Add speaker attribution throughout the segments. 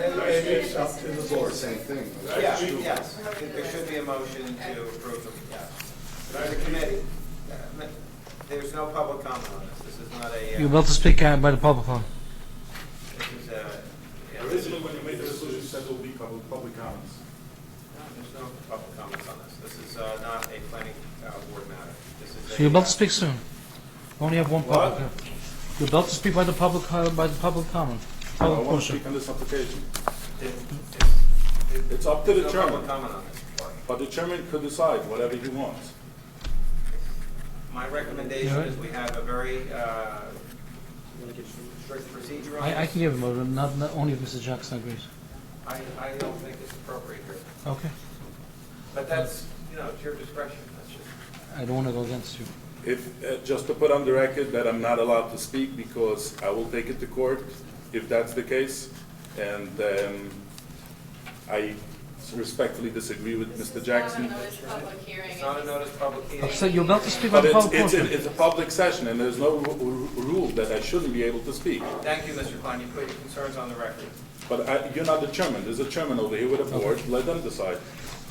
Speaker 1: It's up to the board.
Speaker 2: Same thing.
Speaker 3: Yeah, yes, there should be a motion to approve them, yes. There's a committee. Uh, There's no public comment on this, this is not a,
Speaker 4: You're
Speaker 3: uh,
Speaker 4: about to speak uh, by the public.
Speaker 3: this is a. yeah, there's
Speaker 5: Originally, when you made the decision, you said there will be public, public comments.
Speaker 3: no public comments on this, this is uh, not a planning uh, board matter, this is a.
Speaker 4: So you're about
Speaker 3: uh,
Speaker 4: to speak soon. Only have one public. uh, You're about to speak by the public, uh, by the public comment.
Speaker 5: I
Speaker 4: Public
Speaker 5: want to
Speaker 4: portion.
Speaker 5: speak on this application.
Speaker 3: it- it's- it-
Speaker 5: It's up to the
Speaker 3: there's No
Speaker 5: chairman,
Speaker 3: public comment on this.
Speaker 5: but the chairman could decide whatever he wants.
Speaker 3: My recommendation
Speaker 4: Yeah.
Speaker 3: is we have a very uh, strict procedure on this.
Speaker 4: I, I can give him over, not, not only if Mr. Jackson agrees.
Speaker 3: I, I don't think it's appropriate here.
Speaker 4: Okay.
Speaker 3: But that's, you know, it's your discretion, that's just,
Speaker 4: I don't want to go against you.
Speaker 5: If, uh, just to put on the record that I'm not allowed to speak because I will take it to court if that's the case. And um, I respectfully disagree with Mr. Jackson.
Speaker 1: This is not a notice public hearing.
Speaker 3: it's not a notice public hearing.
Speaker 4: So you're about to speak
Speaker 5: But
Speaker 4: by the
Speaker 5: it's,
Speaker 4: public
Speaker 5: it's,
Speaker 4: portion.
Speaker 5: it's a public session and there's no ru- ru- rule that I shouldn't be able to speak.
Speaker 3: Thank you, Mr. Klein, you put your concerns on the record.
Speaker 5: But I, you're not the chairman. There's a chairman over here with a board. Let them decide.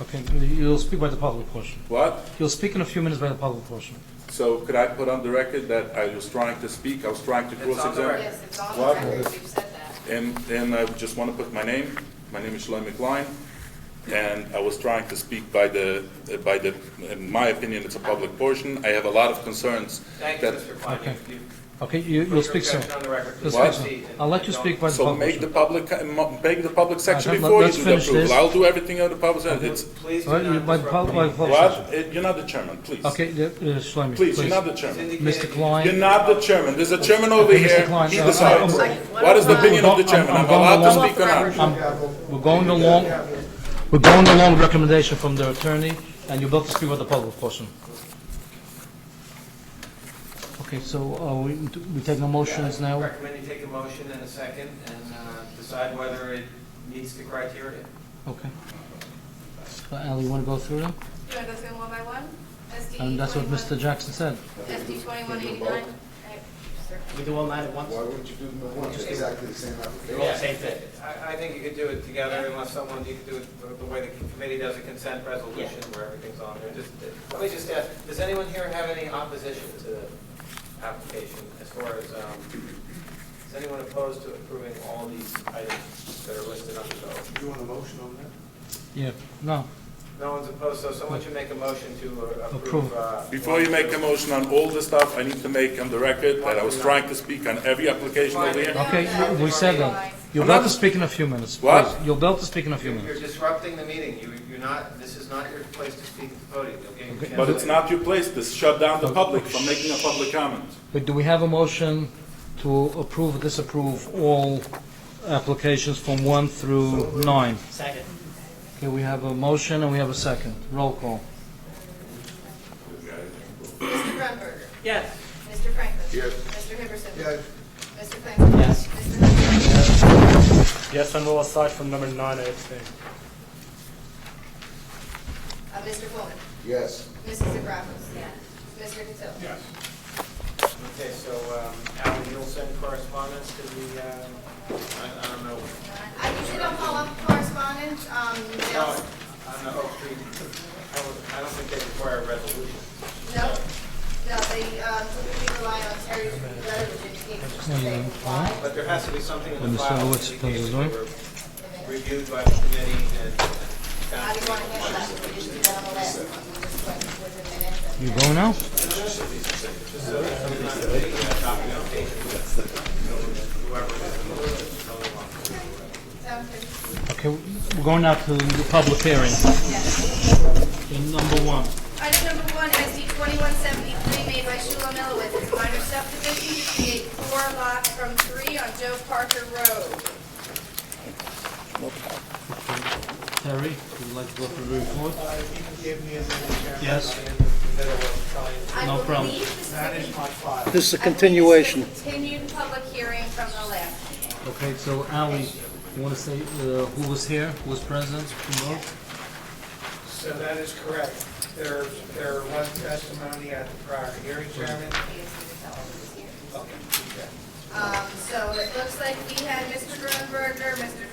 Speaker 4: Okay, you'll speak by the public portion.
Speaker 5: What?
Speaker 4: You'll speak in a few minutes by the public portion.
Speaker 5: So could I put on the record that I was trying to speak, I was trying to
Speaker 3: It's on the
Speaker 5: cross-examine?
Speaker 1: Yes, it's on the
Speaker 5: What?
Speaker 1: record, we've said that.
Speaker 5: And, and I just want to put my name, my name is Shlomo McLean, and I was trying to speak by the, by the, in my opinion, it's a public portion. I have a lot of concerns
Speaker 3: Thank you,
Speaker 5: that,
Speaker 3: Mr. Klein,
Speaker 4: Okay.
Speaker 3: you, you
Speaker 4: Okay, you,
Speaker 3: put
Speaker 4: you'll
Speaker 3: your
Speaker 4: speak soon.
Speaker 3: objection on the record.
Speaker 4: You'll
Speaker 5: What?
Speaker 4: speak soon.
Speaker 3: Proceed and-
Speaker 4: I'll let
Speaker 3: and
Speaker 4: you
Speaker 3: don't-
Speaker 4: speak by the
Speaker 5: so
Speaker 4: public
Speaker 5: make the
Speaker 4: portion.
Speaker 5: public, make the public section
Speaker 4: Okay, let-
Speaker 5: before you
Speaker 4: let's
Speaker 5: do the
Speaker 4: finish
Speaker 5: approval.
Speaker 4: this.
Speaker 5: I'll do everything on the public side. It's,
Speaker 3: Please
Speaker 4: All right,
Speaker 3: do
Speaker 4: you- by
Speaker 3: not
Speaker 4: the public, by the
Speaker 3: disrupt me.
Speaker 4: public portion.
Speaker 5: what? Eh, You're not the chairman, please.
Speaker 4: Okay, the- uh, Shlomi,
Speaker 5: Please,
Speaker 4: please.
Speaker 5: you're not the
Speaker 3: It's
Speaker 5: chairman.
Speaker 3: indicated
Speaker 4: Mr.
Speaker 3: you-
Speaker 4: Klein.
Speaker 5: You're not the chairman. There's a chairman over
Speaker 4: Okay, Mr.
Speaker 5: here.
Speaker 4: Klein,
Speaker 5: He
Speaker 4: uh,
Speaker 5: decides.
Speaker 4: I'm-
Speaker 5: What is the opinion of the chairman? I'm
Speaker 4: I'm going
Speaker 5: allowed to
Speaker 4: along.
Speaker 5: speak or not?
Speaker 4: I'm- Um, We're going along, we're going along with recommendation from the attorney, and you're about to speak with the public portion. Okay, so uh, we we take no motions
Speaker 3: Yeah, I
Speaker 4: now?
Speaker 3: Recommend you take a motion in a second and uh, decide whether it meets the criteria.
Speaker 4: Okay. So, Ally, you want to go through them?
Speaker 1: Do you want to go through them one by one? SD
Speaker 4: And that's what Mr.
Speaker 1: 21
Speaker 4: Jackson said.
Speaker 1: SD twenty-one eighty-nine.
Speaker 6: We do all nine at once?
Speaker 2: Why wouldn't you do them at once? Exactly the same application.
Speaker 6: They're all the same thing.
Speaker 3: I, I think you could do it together unless someone, you could do it the- the way the committee does a consent resolution where everything's on there. Just, let me just ask, does anyone here have any opposition to the application as far as, um, is anyone opposed to approving all these items that are listed on the bill?
Speaker 2: You want a motion on that?
Speaker 4: Yeah, no,
Speaker 3: No one's opposed, so someone should make a motion to uh, approve.
Speaker 4: Approve.
Speaker 3: uh,
Speaker 5: Before you make a motion on all the stuff, I need to make on the record that I was trying to speak on every application over here.
Speaker 4: okay, we said that. You're
Speaker 5: I'm not-
Speaker 4: about to speak in a few minutes.
Speaker 5: What?
Speaker 4: please. You're about to speak in a few
Speaker 3: You're you're
Speaker 4: minutes.
Speaker 3: disrupting the meeting. You, you're not, this is not your place to speak at the podium. You'll get your chance
Speaker 5: But it's
Speaker 3: later.
Speaker 5: not your place to shut down the public from making a public comment.
Speaker 4: But do we have a motion to approve, or disapprove all applications from one through nine?
Speaker 6: Second.
Speaker 4: Okay, we have a motion and we have a second. Roll call.
Speaker 1: Mr. Grunberger.
Speaker 6: Yes.
Speaker 1: Mr. Franklin. Mr. Hipperson.
Speaker 2: Yeah,
Speaker 1: Mr. Flannery.
Speaker 6: Yes.
Speaker 1: Mr. Hudson.
Speaker 7: Yes, and we'll start from number nine, I abstain.
Speaker 1: Uh, Mr. Coleman.
Speaker 2: yes.
Speaker 1: Mrs. Zagrafos. Yes. Mr. Cotillo.
Speaker 5: Yes.
Speaker 3: Okay, so, um, Alan, you'll send correspondence to the, uh, I, I don't know.
Speaker 1: I usually don't call up correspondence, um,
Speaker 3: No,
Speaker 1: emails.
Speaker 3: I'm not, oh, we- I don't, I don't think they require a resolution.
Speaker 1: No, no, they, um, typically rely on Terry's letter, which indicates that they comply.
Speaker 3: But there has to be something in
Speaker 4: When
Speaker 3: the
Speaker 4: the
Speaker 3: file that
Speaker 4: silhouette's
Speaker 3: indicates
Speaker 4: closed,
Speaker 3: they
Speaker 4: right?
Speaker 3: were reviewed by the committee and found
Speaker 1: How
Speaker 3: to
Speaker 1: do you
Speaker 3: be
Speaker 1: want to handle that? We just did that on the last one, we just went with the minutes. and-
Speaker 4: You go now?
Speaker 1: Sounds good.
Speaker 4: Okay, we're going now to the public hearing. Number one.
Speaker 1: Item number one, SD twenty-one seventy-three, made by Shula Milowitz, it's minor subdivision to create four lots from three on Joe Parker Road.
Speaker 4: Terry, would you like to go through the report?
Speaker 8: Uh, If you can give me a minute, Chairman.
Speaker 4: Yes.
Speaker 8: I'm in the middle of trying
Speaker 1: I
Speaker 4: No
Speaker 1: will
Speaker 4: problem.
Speaker 1: leave this
Speaker 8: to
Speaker 1: is a-
Speaker 8: manage my file.
Speaker 9: This is a
Speaker 1: I believe
Speaker 9: continuation.
Speaker 1: this is a Continued public hearing from the last. meeting.
Speaker 4: Okay, so Ali, you want to say uh, who was here, who was present, who wrote?
Speaker 8: So that is correct. There, there was testimony at the prior hearing, Chairman. Okay.
Speaker 1: Um, so it looks like we had Mr. Grunberger, Mr.